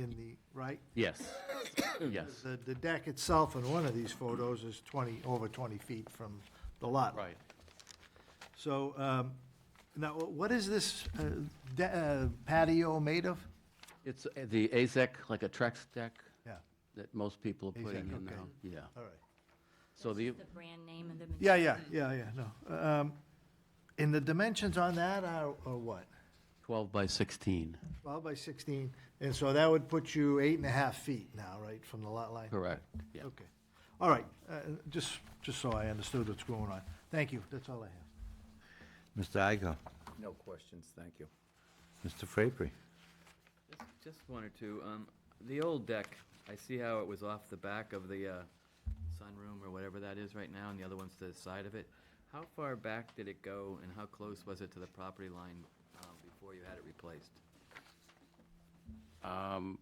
in the, right? Yes, yes, The, the deck itself in one of these photos is 20, over 20 feet from the lot. right. So, um, now, what is this uh, de- uh, patio made of? It's uh, the AZEC, like a Trex deck Yeah, that most people are putting AZEK, in now. okay. Yeah, all right. so the, The brand name of the material. Yeah, yeah, yeah, yeah, no. Um, And the dimensions on that are, are what? 12 by 16, 12 by 16, and so that would put you eight and a half feet now, right, from the lot line? correct, yeah. Okay, all right, uh, just, just so I understood what's going on. Thank you, that's all I have. Mr. Igo, No questions, thank you. Mr. Frapery. Just- Just one or two. Um, The old deck, I see how it was off the back of the uh, sunroom or whatever that is right now, and the other one's to the side of it. How far back did it go, and how close was it to the property line um, before you had it replaced? Um,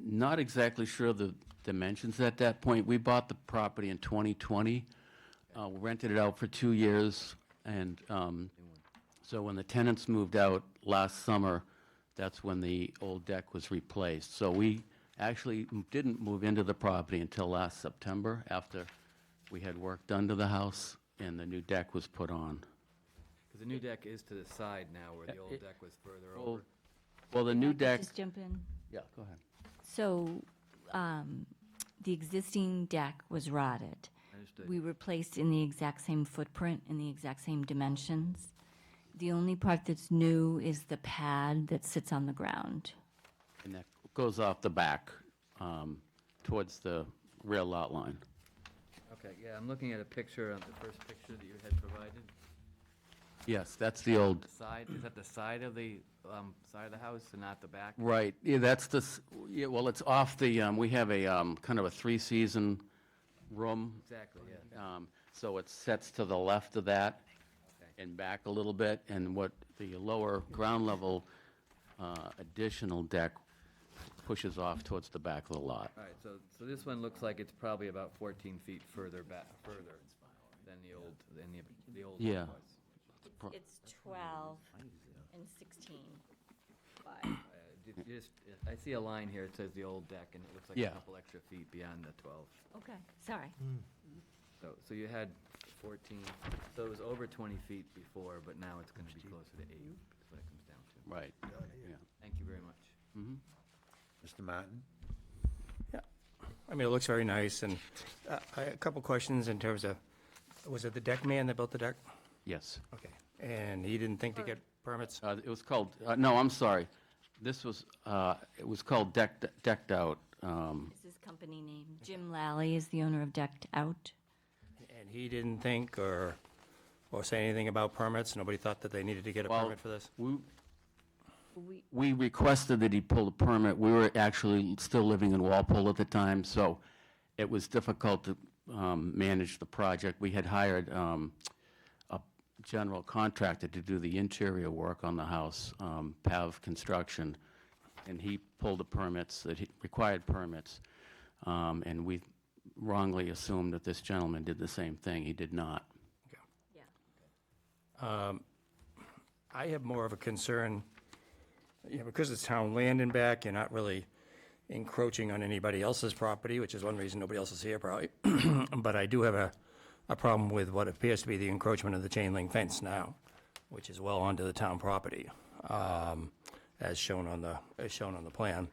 Not exactly sure of the dimensions at that point. We bought the property in 2020, uh, rented it out for two years, and um, so when the tenants moved out last summer, that's when the old deck was replaced. So we actually m- didn't move into the property until last September, after we had work done to the house and the new deck was put on. Because the new deck is to the side now, where the old deck was further over. Well, the new If I could deck, Just jump in. yeah, go ahead. So, um, the existing deck was rotted. Understood. We were placed in the exact same footprint, in the exact same dimensions. The only part that's new is the pad that sits on the ground. And that goes off the back um, towards the rear lot line. Okay, yeah, I'm looking at a picture, uh, the first picture that you had provided. Yes, that's the old, The Side, is that the side of the, um, side of the house and not the back? right, yeah, that's the, s- yeah, well, it's off the, um, we have a um, kind of a three-season room. Exactly, yeah. um, So it sets to the left of that Okay. and back a little bit. And what the lower ground level uh, additional deck pushes off towards the back of the lot. All right, so, so this one looks like it's probably about 14 feet further back, further than the old, than the, the old one Yeah. was. Pro- It's twelve and sixteen. Uh, ju- Just, I see a line here, it says the old deck, and it looks like Yeah. a couple extra feet beyond the 12. Okay, sorry. Hmm. So, so you had 14, so it was over 20 feet before, but now it's going to be closer to 8, is what it comes down to. Right, yeah. Thank you very much. Mr. Martin? I mean, it looks very nice, and uh, I- a couple questions in terms of, was it the deck man that built the deck? Yes. Okay. And he didn't think to get permits? Uh, It was called, uh, no, I'm sorry. This was, uh, it was called Decked decked Out. um, This is company name. Jim Lally is the owner of Decked Out. And he didn't think or, or say anything about permits? Nobody thought that they needed to get a well, permit for this? we- We, We requested that he pull the permit. We were actually still living in Walpole at the time, so it was difficult to um, manage the project. We had hired um, a general contractor to do the interior work on the house, um, Pav Construction, and he pulled the permits, that he required permits. Um, And we wrongly assumed that this gentleman did the same thing. He did not. yeah. I have more of a concern, you know, because it's town land and back, you're not really encroaching on anybody else's property, which is one reason nobody else is here probably. But I do have a, a problem with what appears to be the encroachment of the chain link fence now, which is well onto the town property, um, as shown on the, as shown on the plan.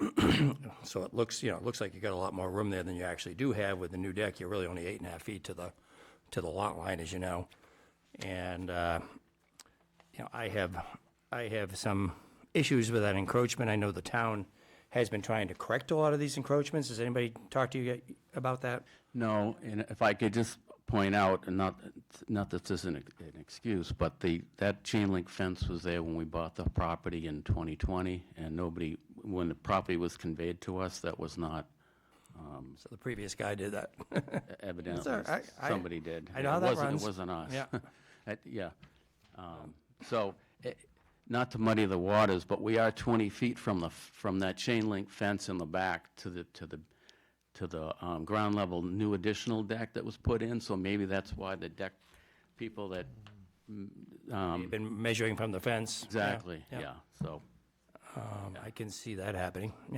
So it looks, you know, it looks like you got a lot more room there than you actually do have with the new deck. You're really only eight and a half feet to the, to the lot line, as you know. And, uh, you know, I have, I have some issues with that encroachment. I know the town has been trying to correct a lot of these encroachments. Has anybody talked to you yet about that? No, and if I could just point out, and not, not that this is an ex- an excuse, but the, that chain link fence was there when we bought the property in 2020, and nobody, when the property was conveyed to us, that was not So the previous guy did that. evidently, all right. I- somebody did. I know how It that wasn't- runs. It wasn't us. Yeah. It- Yeah. Um, So, eh, not to muddy the waters, but we are 20 feet from the, f- from that chain link fence in the back to the, to the, to the um, ground level new additional deck that was put in, so maybe that's why the deck, people that, You've been measuring from the fence. Yeah, exactly, yeah, so. Um, I can see that happening.